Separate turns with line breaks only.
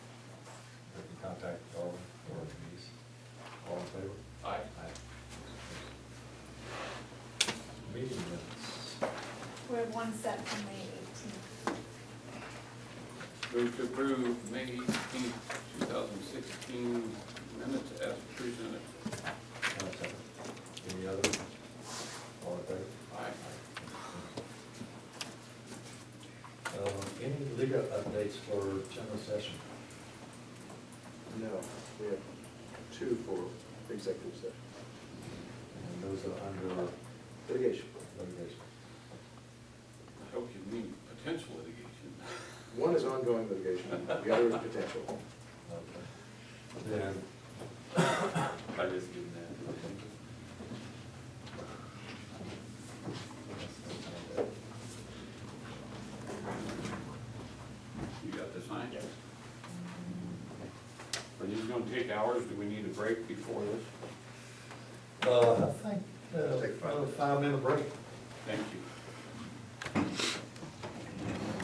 one set from May eighteenth.
Move to approve May eighteenth, two thousand sixteen minutes as presented.
One second. Any other? All in favor?
Aye.
Um, any legal updates for general session?
No, we have two for executive session,
And those are under
litigation.
litigation.
I hope you mean potential litigation.
One is ongoing litigation, the other is potential.
Okay. Then,
I just did that. You got the sign? Yes. Are these gonna take hours? Do we need a break before this?
uh, I think, uh,
Take five.
five minute break.
Thank you.